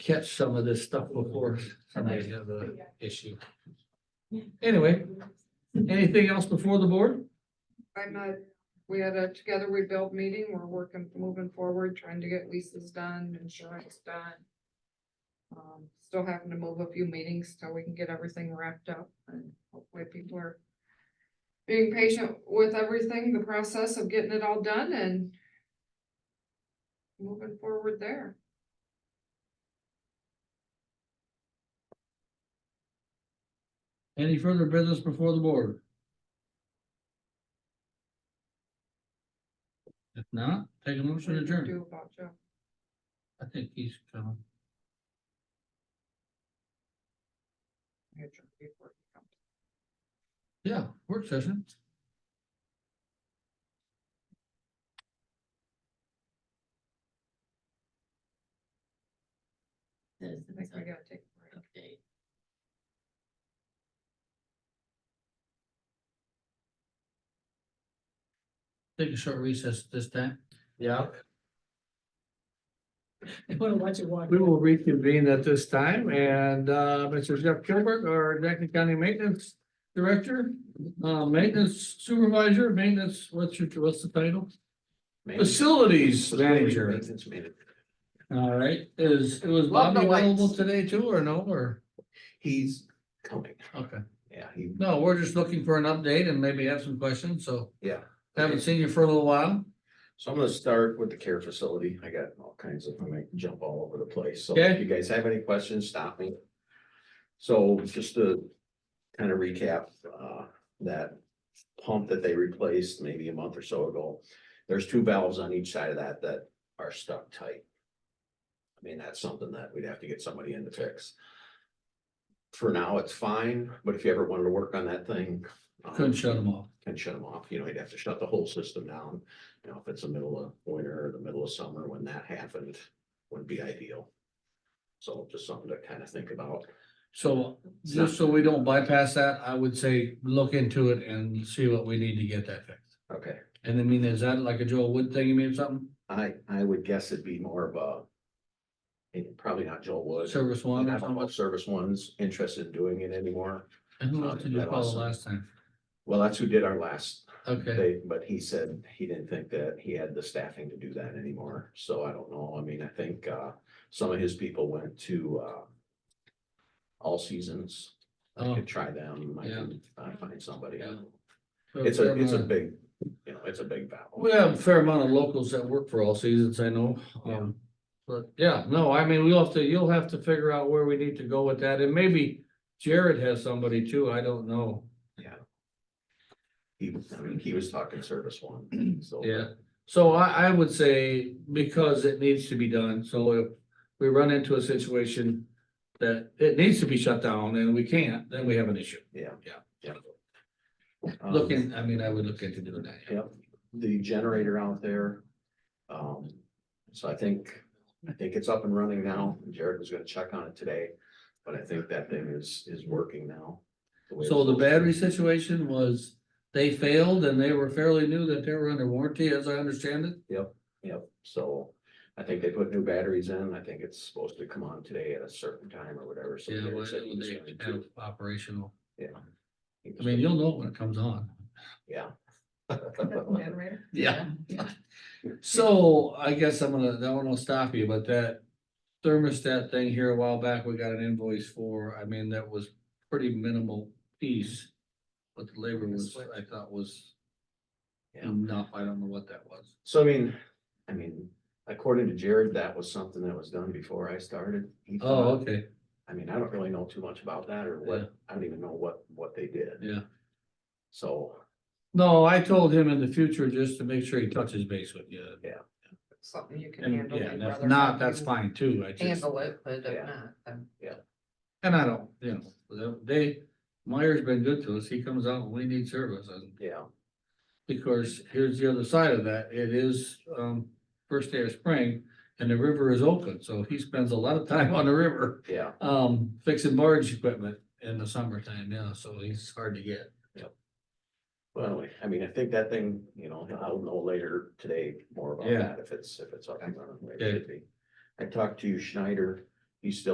catch some of this stuff before somebody has a issue. Anyway, anything else before the board? I'm not, we had a together we build meeting, we're working, moving forward, trying to get leases done, insurance done. Um, still having to move a few meetings till we can get everything wrapped up and hopefully people are. Being patient with everything, the process of getting it all done and. Moving forward there. Any further business before the board? If not, take a What do motion you adjourned. Do about Joe. I think he's coming. Adjourn before he comes. Yeah, work session. Does I the think we design gotta take a break. update. Take a short recess this time. Yeah, What a bunch of we water. will reconvene at this time and uh, Mr. Jeff Gilbert, our Jackson County Maintenance Director, Uh, maintenance supervisor, maintenance, what's your, what's the title? Maintenance- Facilities Manager. Maintenance manager. All right, is, was Love the Bobby available lights. today too or no, or, He's coming. okay. Yeah, he, No, we're just looking for an update and maybe have some questions, so yeah. haven't seen you for a little while. So I'm gonna start with the care facility. I got all kinds of, I might jump all over the place. So Okay. if you guys have any questions, stop me. So just to kind of recap, uh, that pump that they replaced maybe a month or so ago. There's two valves on each side of that that are stuck tight. I mean, that's something that we'd have to get somebody in to fix. For now, it's fine, but if you ever wanted to work on that thing. um, Couldn't shut them off. and shut them off, you know, you'd have to shut the whole system down. You know, if it's the middle of winter or the middle of summer, when that happened, wouldn't be ideal. So just something to kind of think about. So just so we don't bypass that, I would say look into it and see what we need to get that fixed. Okay. And I mean, is that like a Joel Wood thing, you mean something? I, I would guess it'd be more of a, and probably not Joel Wood. Service I one or don't know something? if Service one's interested in doing it anymore. And who else did you call last time? Well, that's who did our last, Okay, they, but he said he didn't think that he had the staffing to do that anymore. So I don't know. I mean, I think, uh, some of his people went to, uh, All Seasons. I Oh. could try them. I Yeah. can uh, find somebody. Yeah. It's a, it's a big, you know, it's a big battle. We have a fair amount of locals that work for all seasons, I know, um, but yeah, no, I mean, we'll have to, you'll have to figure out where we need to go with that, and maybe. Jared has somebody too, I don't know, He, was- I mean, he was talking service one, so. yeah, so I, I would say, because it needs to be done, so if. We run into a situation that it needs to be shut down and we can't, then we have an issue, Yeah. Yeah. Yeah. Um, looking, I mean, I would look into doing that. yeah. Yep, the generator out there. Um, so I think, I think it's up and running now. Jared was gonna check on it today, but I think that thing is, is working now. way So the it's supposed battery situation was, they failed and they were fairly new that they were under warranty, as I understand it. to. Yep, so I think they put new batteries in. I think it's supposed to come on today at a certain time or whatever. So Yeah, Jared well, said he was they going to. have operational, Yeah. He I was mean, gonna- you'll know it when it comes on. Yeah. Generator? Yeah. So I guess I'm gonna, that one will stop you, but that thermostat thing here a while back, we got an invoice for, I mean, that was pretty minimal piece. But the labor was, I thought was Yeah. enough, I don't know what that was. So I mean, I mean, according to Jared, that was something that was done before I started. He Oh, thought- okay, I mean, I don't really know too much about that or Yeah. what, I don't even know what, what they did. yeah. So, No, I told him in the future just to make sure he touches base with you. Something you can And handle. yeah, and and if whether or not, you that's fine too, I just. Handle it, but Yeah. if not, then. And I don't, you know, they, Meyer's been good to us, he comes out when we need service, and yeah, because here's the other side of that, it is, um, first day of spring. And the river is open, so he spends a lot of time on the river, yeah, um, fixing barge equipment in the summertime now, so he's hard to get. well, anyway, I mean, I think that thing, you know, I'll know later today more about Yeah. that, if it's, if it's up and running. the way it should be. I talked to Schneider He's still